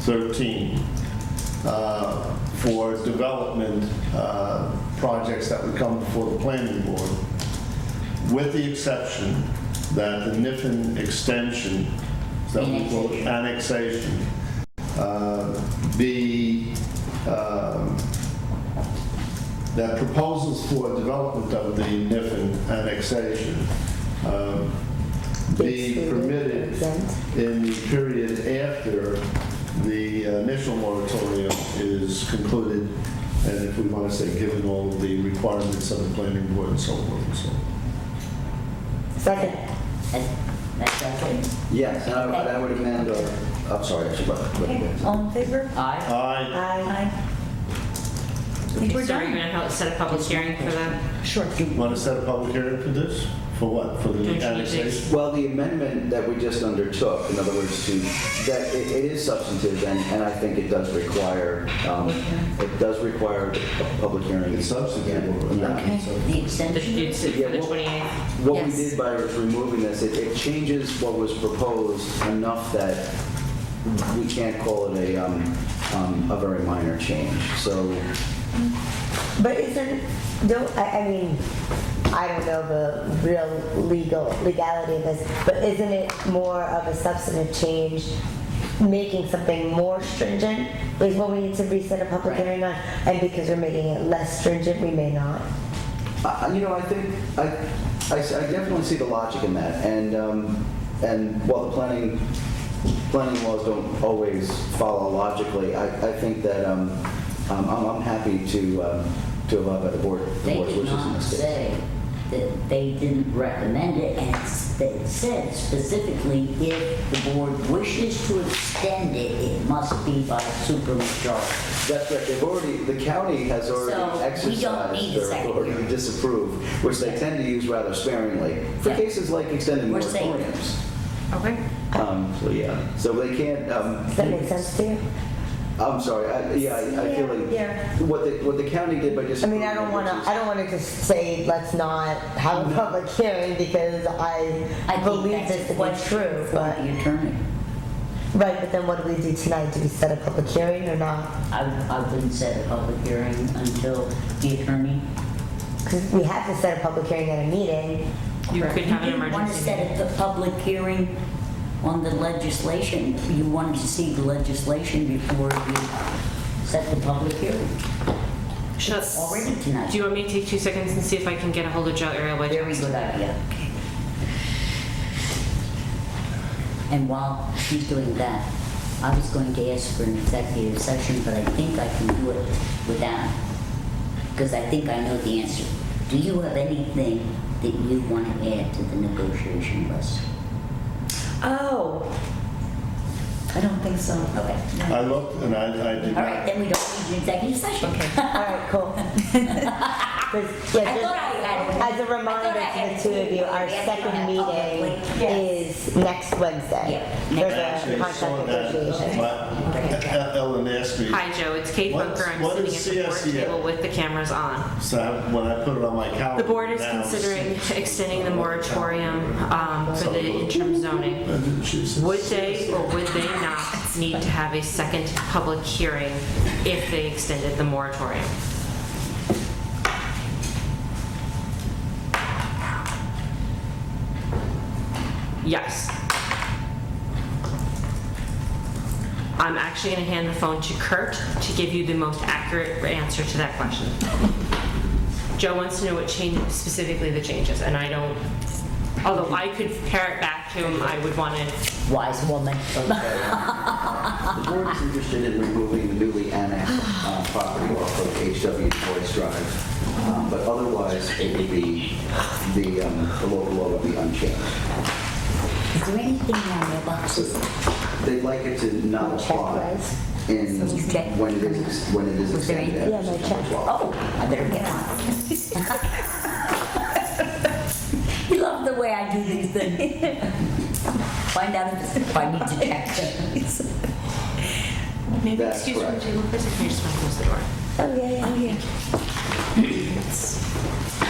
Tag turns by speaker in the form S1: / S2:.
S1: 13 uh, for development uh, projects that would come before the planning board, with the exception that the Niffen extension, that we call it annexation, uh, be um, that proposals for development of the Niffen annexation um, be permitted in the period after the initial moratorium is concluded, and if we want to say, given all the requirements of the planning board and so forth and so on.
S2: Second.
S3: That's, that's okay.
S4: Yes, and I would- I would amend, uh, I'm sorry, actually, but, but-
S2: All in favor?
S3: Aye.
S1: Aye.
S2: Aye.
S5: Okay,
S2: We're
S5: so are you
S2: done.
S5: gonna help set a public hearing for that?
S2: Sure.
S1: Want to set a public hearing for this? For what? For the
S5: Don't you
S1: annexation?
S4: well, the amendment that we just undertook, in other words, to, that it it is substantive, and, and I think it does require, um, it does require a public hearing.
S1: It's substantive.
S4: Yeah.
S3: Okay, the
S5: The,
S3: extension?
S5: it's for
S4: Yeah,
S5: the
S4: well-
S5: 28th?
S4: What we
S3: Yes.
S4: did by removing this, it, it changes what was proposed enough that we can't call it a, um, um, a very minor change. So,
S2: But isn't, don't, I, I mean, I don't know the real legal, legality of this, but isn't it more of a substantive change, making something more stringent is what we need to reset a public
S3: Right.
S2: hearing on? And because we're making it less stringent, we may not.
S4: I, I- you know, I think, I, I s- I definitely see the logic in that. And, um, and while the planning, planning laws don't always follow logically, I, I think that, um, um, I'm, I'm happy to, um, to abide by the board, the
S3: They
S4: board's
S3: did
S4: wishes in
S3: not
S4: this case.
S3: say that they didn't recommend it, and s- they said specifically, if the board wishes to extend it, it must be by supermajority.
S4: That's right, they've already, the county has already
S3: So, we don't
S4: exercised
S3: need the
S4: their
S3: second
S4: authority to
S3: hearing.
S4: disapprove, which they tend to use rather sparingly, for
S3: Yeah.
S4: cases like extended
S3: We're safe.
S4: moratoriums.
S5: Okay.
S4: Um, So, yeah, so they can't, um,
S2: Does that make sense to you?
S4: I'm sorry, I- yeah, I I feel
S2: Yeah.
S4: like, what the, what the county did by
S2: I
S4: disapproving.
S2: mean, I don't want to,
S4: which is-
S2: I don't want to just say, let's not have a public hearing because I
S3: I think
S2: believe
S3: that's
S2: this to
S3: a
S2: be
S3: question
S2: true,
S3: for
S2: but,
S3: the attorney.
S2: right, but then what do we do tonight? Do we set a public hearing or not?
S3: I, I wouldn't set a public hearing until the attorney.
S2: Because we have to set a public hearing at a meeting.
S5: You could have an
S3: You didn't want to
S5: emergency.
S3: set a public hearing on the legislation. You wanted to see the legislation before you set the public hearing.
S5: Should-
S3: already tonight.
S5: Do you want me to take two seconds and see if I can get a hold of Joe Ariel?
S3: Very good idea. And while she's doing that, I was going to ask for an executive session, but I think I can do it without, because I think I know the answer. Do you have anything that you want to add to the negotiation list?
S2: Oh.
S3: I don't think so. Okay.
S1: I looked and I, I did
S3: All right,
S1: not.
S3: then we don't need an executive session.
S2: All right, cool. 'Cause, yeah,
S3: I thought I had-
S2: As a reminder
S3: I thought I
S2: to
S3: had
S2: the two of you, our
S3: to do it
S2: second meeting
S3: publicly.
S2: is next Wednesday.
S3: Yeah.
S1: I
S2: There's a
S1: actually saw
S2: contract
S1: that,
S2: negotiation.
S1: but Ellen asked me,
S5: Hi, Joe. It's Kate
S1: What-
S5: Bunker. I'm
S1: what
S5: sitting
S1: is E
S5: at the board
S1: CSEA?
S5: table with the cameras on.
S1: so I- when I put it on my calendar.
S5: The board is
S1: now,
S5: considering
S1: six-
S5: extending the moratorium um, for the interim zoning.
S1: And she said,
S5: Would they or would they not need to have a second public hearing if they extended the moratorium? Yes. I'm actually going to hand the phone to Kurt to give you the most accurate answer to that question. Joe wants to know what change, specifically the changes, and I don't, although I could pare it back to him, I would want to
S3: Wise woman.
S4: The board is interested in removing the newly annexed uh, property off of HW Boyce Drive, um, but otherwise it would be, the, um, the local law would be unchanged.
S3: Is there anything on your boxes?
S4: They'd like it to not apply
S2: Checklist.
S4: in,
S3: Okay.
S4: when it is, when it is
S3: Was there
S4: extended.
S2: anything- Yeah, my check.
S3: Oh, I better get on. You love the way I do these things. Find out if if I need to check things.
S5: Maybe
S4: That's
S5: excuse me,
S4: correct.
S3: Oh,
S5: Jay, one person, can you just wanna close the door?
S2: Oh, yeah, yeah, yeah.